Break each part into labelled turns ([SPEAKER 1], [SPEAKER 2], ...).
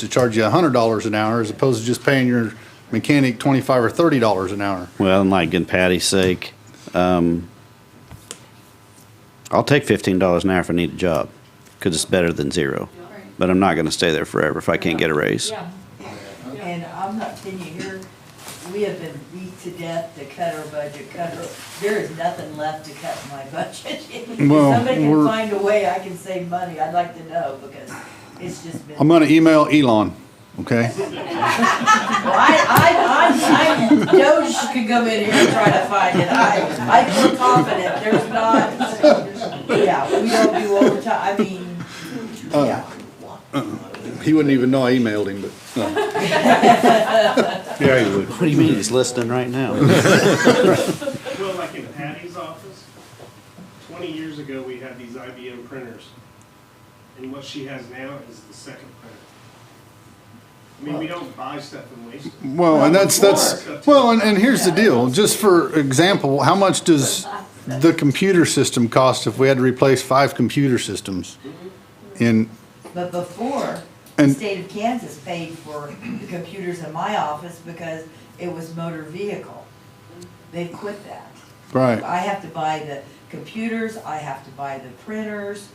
[SPEAKER 1] to charge you hundred dollars an hour as opposed to just paying your mechanic twenty-five or thirty dollars an hour.
[SPEAKER 2] Well, and like in Patty's sake, um, I'll take fifteen dollars an hour if I need a job, because it's better than zero. But I'm not going to stay there forever if I can't get a raise.
[SPEAKER 3] Yeah,
[SPEAKER 4] And I'm not kidding you here, we have been beat to death to cut our budget, cut our, there is nothing left to cut in my budget. If
[SPEAKER 1] Well,
[SPEAKER 4] Somebody can
[SPEAKER 1] we're-
[SPEAKER 4] find a way I can save money, I'd like to know, because it's just been.
[SPEAKER 1] I'm gonna email Elon, okay?
[SPEAKER 4] Well, I, I, I'm, I'm, Doge could come in here and try to find it, I, I feel confident, there's not, yeah, we don't do overtime, I mean,
[SPEAKER 1] Uh,
[SPEAKER 4] yeah.
[SPEAKER 1] He wouldn't even know I emailed him, but, uh,
[SPEAKER 5] Yeah, he would.
[SPEAKER 2] What do you mean? He's listening right now.
[SPEAKER 6] Well, like in Patty's office, twenty years ago, we had these IBM printers. And what she has now is the second printer. I mean, we don't buy stuff and waste it.
[SPEAKER 1] well, and that's, that's, well, and, and here's the deal, just for example, how much does the computer system cost if we had to replace five computer systems? And,
[SPEAKER 4] But before, the
[SPEAKER 1] And-
[SPEAKER 4] state of Kansas paid for the computers in my office because it was motor vehicle. They quit that.
[SPEAKER 1] right,
[SPEAKER 4] I have to buy the computers, I have to buy the printers,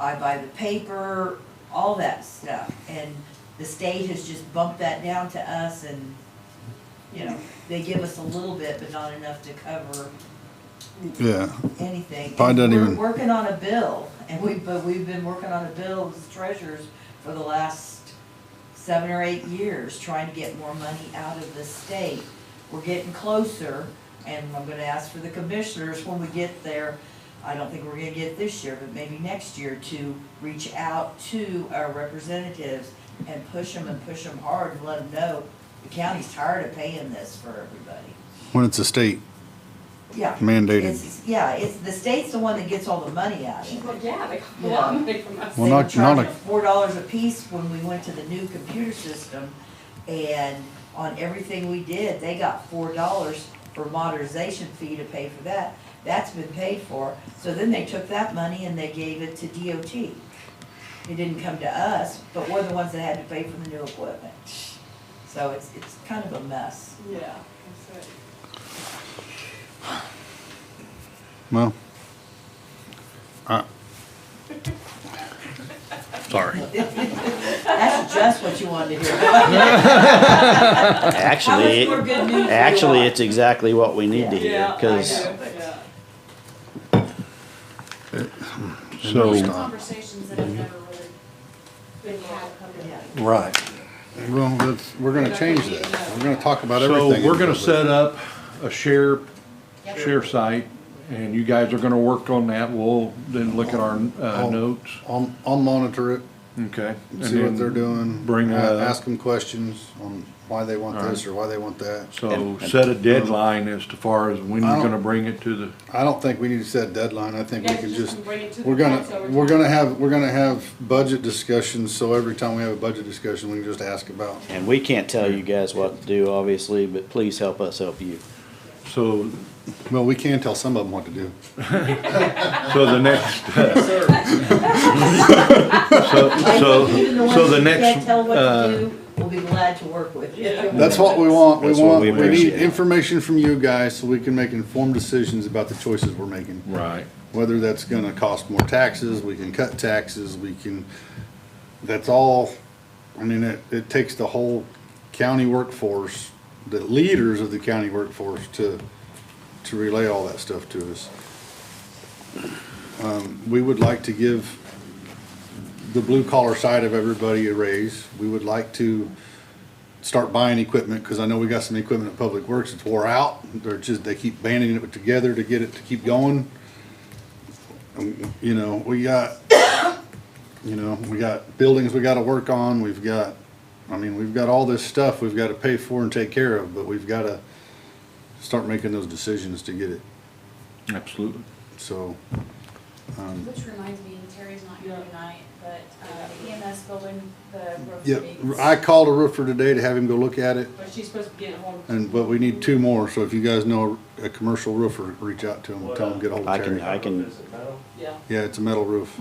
[SPEAKER 4] I buy the paper, all that stuff. And the state has just bumped that down to us and, you know, they give us a little bit, but not enough to cover
[SPEAKER 1] yeah,
[SPEAKER 4] anything.
[SPEAKER 1] Probably doesn't
[SPEAKER 4] We're
[SPEAKER 1] even-
[SPEAKER 4] Working on a bill, and we, but we've been working on a bill as treasurers for the last seven or eight years, trying to get more money out of the state. We're getting closer, and I'm gonna ask for the commissioners when we get there, I don't think we're gonna get it this year, but maybe next year, to reach out to our representatives and push them and push them hard and let them know the county's tired of paying this for everybody.
[SPEAKER 1] when it's a state
[SPEAKER 4] Yeah.
[SPEAKER 1] mandated.
[SPEAKER 4] It's, yeah, it's, the state's the one that gets all the money out of it.
[SPEAKER 3] well, yeah, they got a lot of money from us.
[SPEAKER 1] Well,
[SPEAKER 4] They
[SPEAKER 1] not-
[SPEAKER 4] were charging
[SPEAKER 1] not a-
[SPEAKER 4] Four dollars a piece when we went to the new computer system, and on everything we did, they got four dollars for modernization fee to pay for that. That's been paid for, so then they took that money and they gave it to DOT. It didn't come to us, but we're the ones that had to pay for the new equipment. So it's, it's kind of a mess.
[SPEAKER 3] Yeah, that's it.
[SPEAKER 1] Well,
[SPEAKER 5] Sorry.
[SPEAKER 4] That's just what you wanted to hear. How much
[SPEAKER 2] Actually,
[SPEAKER 4] more good news do you
[SPEAKER 2] actually,
[SPEAKER 4] want?
[SPEAKER 2] it's exactly what we need to
[SPEAKER 3] Yeah,
[SPEAKER 2] hear.
[SPEAKER 3] I
[SPEAKER 2] Because
[SPEAKER 3] know, yeah.
[SPEAKER 5] So,
[SPEAKER 7] conversations that have never really been had publicly.
[SPEAKER 4] Yeah.
[SPEAKER 5] right.
[SPEAKER 1] well, that's, we're gonna change that. We're gonna talk about everything.
[SPEAKER 5] So
[SPEAKER 1] in a
[SPEAKER 5] we're gonna
[SPEAKER 1] little bit.
[SPEAKER 5] set up a share, share site, and you guys are gonna work on that. We'll then look at our, uh,
[SPEAKER 1] I'll-
[SPEAKER 5] notes,
[SPEAKER 1] I'll, I'll monitor it,
[SPEAKER 5] okay? and
[SPEAKER 1] Oh. see
[SPEAKER 5] then
[SPEAKER 1] what they're doing.
[SPEAKER 5] Bring,
[SPEAKER 1] a-
[SPEAKER 5] uh,
[SPEAKER 1] Ask them questions on why they want
[SPEAKER 5] All
[SPEAKER 1] this or why they want that.
[SPEAKER 5] So set a deadline as to far as when
[SPEAKER 1] Um, I
[SPEAKER 5] you're
[SPEAKER 1] don't-
[SPEAKER 5] gonna bring it to the,
[SPEAKER 1] I don't think we need to set a deadline, I think we
[SPEAKER 3] Yeah,
[SPEAKER 1] can
[SPEAKER 3] just
[SPEAKER 1] just,
[SPEAKER 3] bring it to the
[SPEAKER 1] we're
[SPEAKER 3] council
[SPEAKER 1] gonna,
[SPEAKER 3] over
[SPEAKER 1] we're
[SPEAKER 3] time.
[SPEAKER 1] gonna have, we're gonna have budget discussions, so every time we have a budget discussion, we can just ask about.
[SPEAKER 2] and we can't tell you guys what to do, obviously, but please help us help you.
[SPEAKER 5] so,
[SPEAKER 1] Well, we can tell some of them what to do.
[SPEAKER 5] so the next. uh, So,
[SPEAKER 4] I think even the
[SPEAKER 5] so, so
[SPEAKER 4] ones
[SPEAKER 5] the
[SPEAKER 4] who
[SPEAKER 5] next,
[SPEAKER 4] can't tell what to
[SPEAKER 5] uh,
[SPEAKER 4] do, we'll be glad to work with you.
[SPEAKER 1] That's what we want, we
[SPEAKER 2] That's what
[SPEAKER 1] want,
[SPEAKER 2] we
[SPEAKER 1] we need
[SPEAKER 2] appreciate.
[SPEAKER 1] information from you guys so we can make informed decisions about the choices we're making.
[SPEAKER 5] right,
[SPEAKER 1] Whether that's gonna cost more taxes, we can cut taxes, we can, that's all, I mean, it, it takes the whole county workforce, the leaders of the county workforce to, to relay all that stuff to us. Um, we would like to give the blue collar side of everybody a raise. We would like to start buying equipment, cause I know we got some equipment at Public Works, it's wore out. They're just, they keep banding it together to get it to keep going. Um, You know, we got, you know, we got buildings we gotta work on, we've got, I mean, we've got all this stuff we've gotta pay for and take care of, but we've gotta start making those decisions to get it,
[SPEAKER 5] absolutely.
[SPEAKER 1] so. Um,
[SPEAKER 7] Which reminds me, Terry's not here tonight, but uh, the EMS building, the roof
[SPEAKER 1] Yeah,
[SPEAKER 7] leaks.
[SPEAKER 1] I called a roofer today to have him go look at it,
[SPEAKER 3] But she's supposed to be getting home.
[SPEAKER 1] and, but we need two more, so if you guys know a commercial roofer, reach out to him, tell him, to get a hold
[SPEAKER 2] I
[SPEAKER 1] of
[SPEAKER 2] can,
[SPEAKER 1] Terry.
[SPEAKER 2] I can,
[SPEAKER 3] Yeah.
[SPEAKER 1] Yeah, it's a metal roof.